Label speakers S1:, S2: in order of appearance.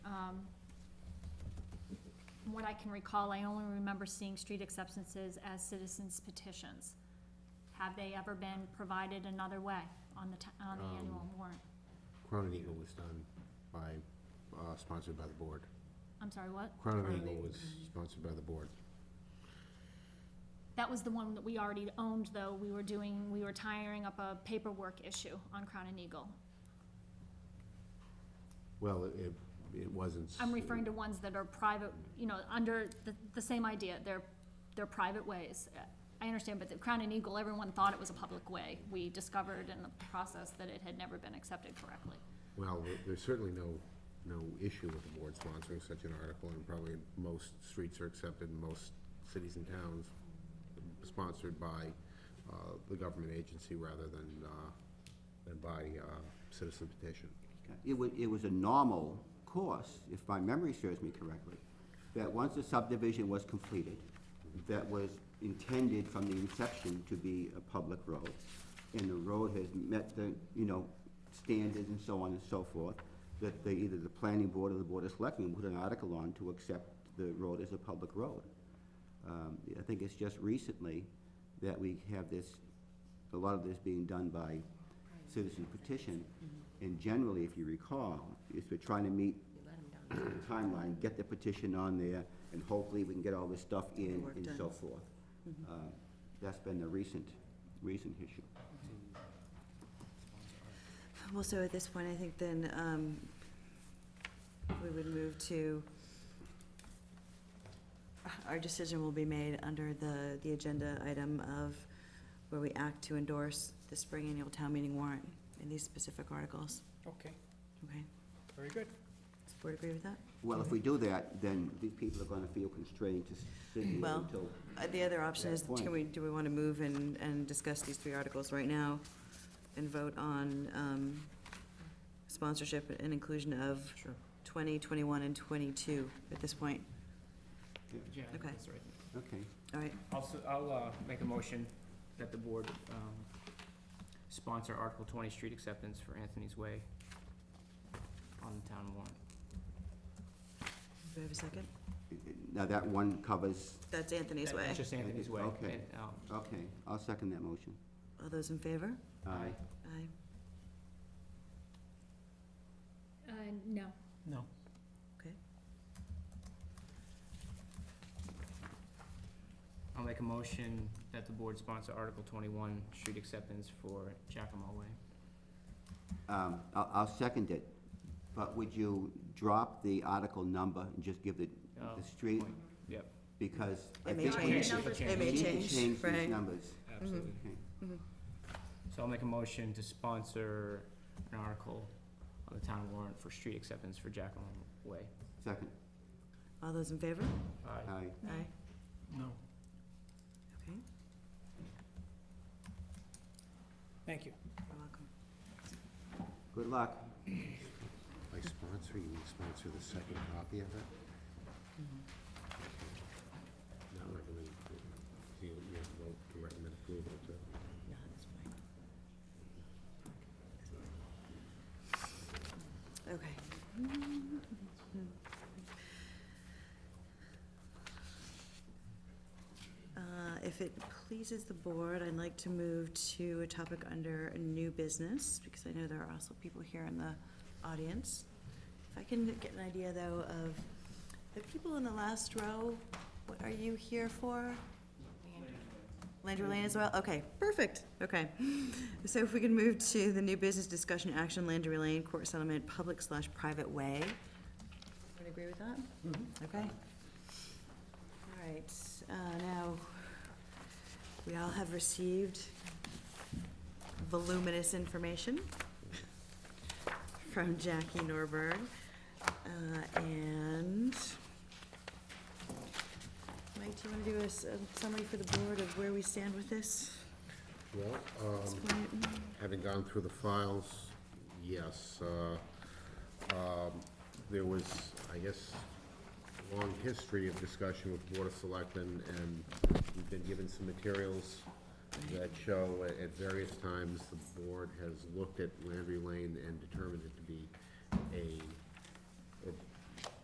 S1: Um, from what I can recall, I only remember seeing street acceptances as citizens petitions. Have they ever been provided another way on the, ti- on the
S2: Um,
S1: annual warrant?
S2: Crown and Eagle was done by, uh, sponsored by the board.
S1: I'm sorry, what?
S2: Crown
S3: Crown
S2: and
S3: and
S2: Eagle
S3: Eagle.
S2: was sponsored by the board.
S1: That was the one that we already owned, though. We were doing, we were tiring up a paperwork issue on Crown and Eagle.
S2: Well, it- it, it wasn't. s-
S1: I'm referring to ones that are private, you know, under the, the same idea, they're, they're private ways. I understand, but the Crown and Eagle, everyone thought it was a public way. We discovered in the process that it had never been accepted correctly.
S2: Well, there- there's certainly no, no issue with the board sponsoring such an article, and probably most streets are accepted, in most cities and towns sponsored by, uh, the government agency rather than, uh, than by, uh, citizen petition.
S4: It was, it was a normal course, if my memory serves me correctly, that once a subdivision was completed, that was intended from the inception to be a public road, and the road has met the, you know, standards and so on and so forth, that they, either the planning board or the board of selectmen put an article on to accept the road as a public road. Um, I think it's just recently that we have this, a lot of this being done by citizen petition. And generally, if you recall, is we're trying to meet
S3: Mm-hmm. You let 'em down.
S4: the timeline, get the petition on there, and hopefully we can get all this stuff
S3: the
S4: in
S3: work
S4: and so
S3: done.
S4: forth.
S3: Mm-hmm.
S4: Uh, That's been the recent, recent issue.
S3: Well, so at this point, I think then um, we would move to, our decision will be made under the, the agenda item of where we act to endorse the spring annual town meeting warrant in these specific articles.
S5: Okay,
S3: Okay,
S5: very good.
S3: does the board agree with that?
S4: Well, if we do that, then these people are gonna feel constrained to sit here
S3: Well-
S4: until,
S3: Uh, The other option is,
S4: Good point.
S3: can we, do we want to move and, and discuss these three articles right now and vote on um, sponsorship and inclusion of
S5: Sure.
S3: 20, 21, and 22 at this point?
S5: Yeah, I think
S3: Okay.
S5: that's right.
S4: okay.
S3: All right,
S5: I'll, s- I'll, uh, make a motion that the board, um, sponsor Article twenty, street acceptance for Anthony's Way on the town warrant.
S3: do we have a second?
S4: Now, that one covers,
S3: That's Anthony's
S5: That-
S3: way.
S5: That's just Anthony's Way.
S4: Okay.
S5: and, um,
S4: okay, I'll second that motion.
S3: All those in favor?
S4: Aye.
S3: Aye.
S1: Uh, no.
S5: No.
S3: Okay.
S5: I'll make a motion that the board sponsor Article twenty-one, street acceptance for Jackamo Way.
S4: Um, I'll, I'll second it, but would you drop the article number and just give the,
S5: Oh,
S4: the street?
S5: point. Yep,
S4: Because I
S3: It may
S4: think we
S3: change.
S4: need-
S5: Change,
S3: It
S4: we
S3: may
S4: need to
S3: change,
S4: these
S3: right.
S4: numbers.
S5: absolutely.
S4: Okay.
S5: So I'll make a motion to sponsor an article on the town warrant for street acceptance for Jackamo Way.
S4: Second,
S3: All those in favor?
S5: Aye.
S4: aye.
S3: Aye.
S5: No.
S3: Okay,
S5: Thank you.
S3: you're welcome.
S4: Good luck.
S2: By sponsor, you mean sponsor the second copy of it? Not recommend, approval. you, you have to vote to recommend approval to.
S3: No, that's fine. Okay. Uh, If it pleases the board, I'd like to move to a topic under new business, because I know there are also people here in the audience. If I can get an idea, though, of the people in the last row, what are you here for? Landry Lane as well? Okay, perfect, okay. So if we can move to the new business discussion action, Landry Lane Court Settlement, public slash private way. Would agree with that? Okay. All right, uh, now, we all have received voluminous information from Jackie Norberg, uh, and Mike, do you wanna do a s- a summary for the board of where we stand with this?
S2: Well,
S3: at this
S2: um,
S3: point?
S2: having gone through the files, yes, uh, um, there was, I guess, a long history of discussion with Board of Selectmen, and we've been given some materials that show at- at various times the board has looked at Landry Lane and determined it to be a